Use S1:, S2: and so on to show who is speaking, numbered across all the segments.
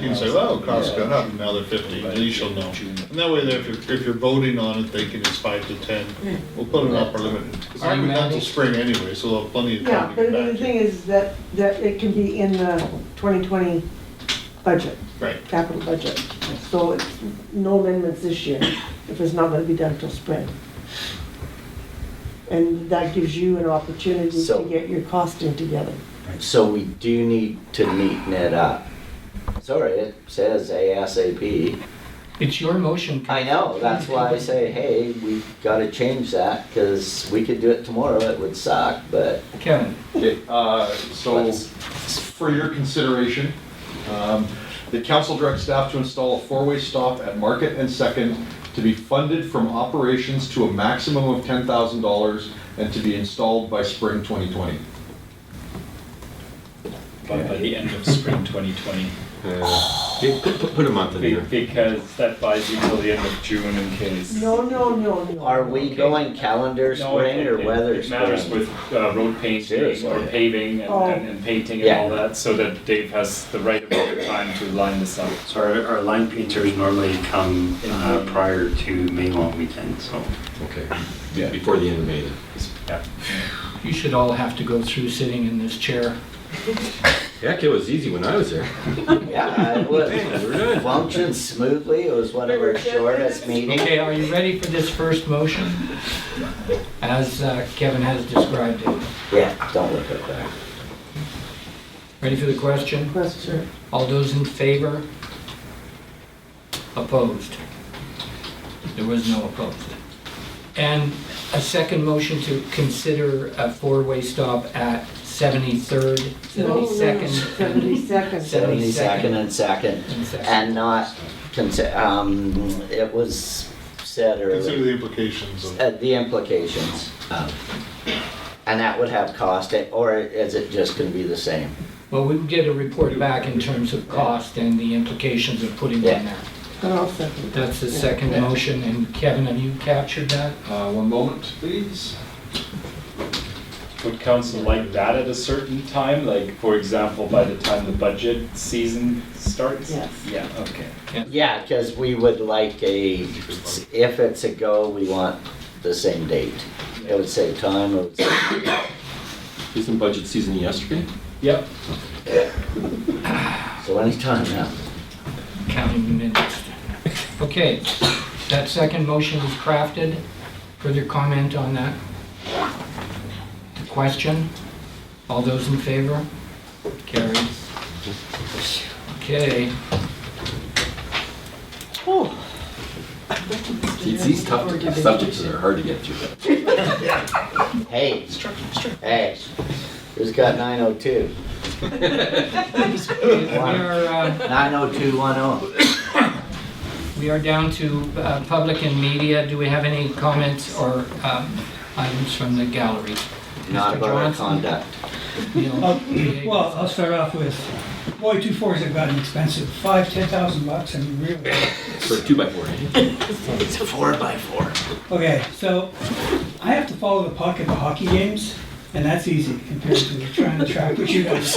S1: You can say, oh, costs gone up, now they're fifty, at least you'll know. And that way, if you're, if you're voting on it, thinking it's five to ten, we'll put an upper limit. It's not
S2: Are you
S1: going down
S2: mad?
S1: till spring anyway, so they'll have plenty of
S3: Yeah,
S1: time to
S3: but
S1: get
S3: the
S1: back to
S3: thing
S1: you.
S3: is that, that it can be in the 2020 budget,
S1: Right,
S3: capital budget. So it's no amendments this year, if it's not gonna be done till spring. And that gives you an opportunity to
S4: So-
S3: get your costing together.
S4: So we do need to neaten it up. Sorry, it says ASAP.
S2: It's your motion.
S4: I know, that's why I say, hey, we gotta change that, because we could do it tomorrow, it would suck, but
S2: Kevin,
S5: Okay, uh, so
S4: Let's-
S5: for your consideration, um, the council directs staff to install a four-way stop at Market and Second to be funded from operations to a maximum of ten thousand dollars and to be installed by spring twenty twenty.
S6: by, by the end of spring 2020.
S7: Yeah, Put, put- put a month in
S6: Be-
S7: there.
S6: Because that buys you till the end of June in case.
S3: No, no, no, no.
S4: are we going calendar
S6: No, it-
S4: spring or
S6: it-
S4: weather
S6: It matters
S4: spring?
S6: with uh, road painting
S4: Seriously.
S6: or paving and-
S3: Oh.
S6: and, and painting and
S4: Yeah.
S6: all that, so that Dave has the right amount of time to line this up.
S8: So our, our line painters normally come
S9: Um,
S8: uh,
S6: Mhm.
S8: prior to May long weekend, so.
S7: Okay. Be- Before the end of May then.
S2: you should all have to go through sitting in this chair.
S7: Heck, it was easy when I was there.
S4: Yeah, it
S7: Hey,
S4: would
S7: we're done.
S4: function smoothly, it was one of our shortest meetings.
S2: Okay, are you ready for this first motion? As uh, Kevin has described it.
S4: Yeah, don't look at that.
S2: Ready for the question?
S3: Question.
S2: All those in favor? Opposed? There was no opposed. And a second motion to consider a four-way stop at 73rd, 72nd,
S3: 72nd.
S4: Seventy-second and second,
S2: and second.
S4: and not consider, um, it was said earlier.
S1: consider the implications of.
S4: Uh, the implications. of- And that would have cost, eh, or is it just gonna be the same?
S2: Well, we would get a report back in terms of cost and the implications of putting
S4: Yeah.
S2: in there.
S3: I'll second.
S2: That's the second motion, and Kevin, have you captured that?
S5: Uh, one moment, please.
S6: Would council like that at a certain time, like, for example, by the time the budget season starts?
S3: Yes.
S6: Yeah, okay.
S4: Yeah, cause we would like a, if it's a go, we want the same date. It would save time, it would save,
S7: Isn't budget season yesterday?
S6: Yep,
S4: so anytime now.
S2: Counting minutes. Okay, that second motion is crafted. Further comment on that? Question? All those in favor? Carried. Okay,
S7: These, these tough subjects are hard to get through.
S4: Hey, hey, who's got nine oh two?
S2: we are, uh,
S4: Nine oh two one oh.
S2: We are down to uh, public and media. Do we have any comments or um, items from the gallery?
S4: Not
S2: Mr.
S4: about our
S2: Johnson?
S4: conduct.
S9: I'll-
S2: Neil?
S9: Uh, Well, I'll start off with, boy, two fours have gotten expensive, five, ten thousand bucks, and really,
S7: For a two by four, eh?
S9: okay, so I have to follow the puck at the hockey games, and that's easy compared to trying to track what you guys.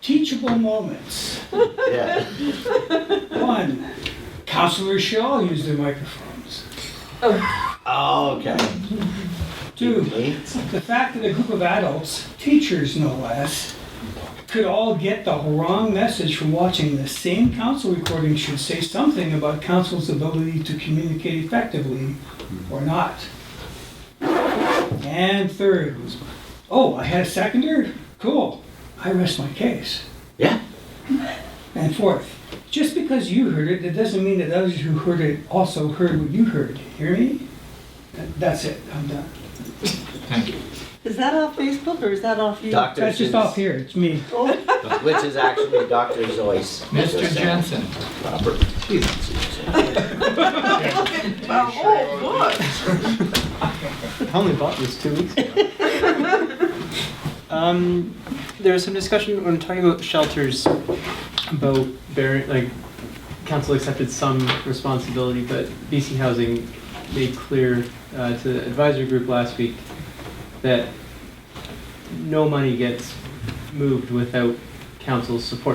S9: Teachable moments.
S4: Yeah.
S9: One, counselors should all use their microphones.
S4: Oh, okay.
S9: Two,
S4: Me?
S9: The fact that a group of adults, teachers no less, could all get the wrong message from watching the same council recording should say something about council's ability to communicate effectively or not. And third, oh, I had a seconder? Cool. I rest my case.
S4: Yeah.
S9: And fourth, just because you heard it, it doesn't mean that others who heard it also heard what you heard. Hear me? That's it. I'm done.
S2: Thank you.
S3: Is that off Facebook or is that off you?
S4: Dr.
S9: That's just
S4: Seuss.
S9: off here. It's me.
S4: Which is actually Dr. Zoyce.
S2: Mr. Jensen,
S4: Proper.
S3: Oh,
S10: I only bought this two weeks ago. um, there was some discussion when talking about shelters about bearing, like, council accepted some responsibility, but BC Housing made clear uh, to the advisory group last week that no money gets moved without council's support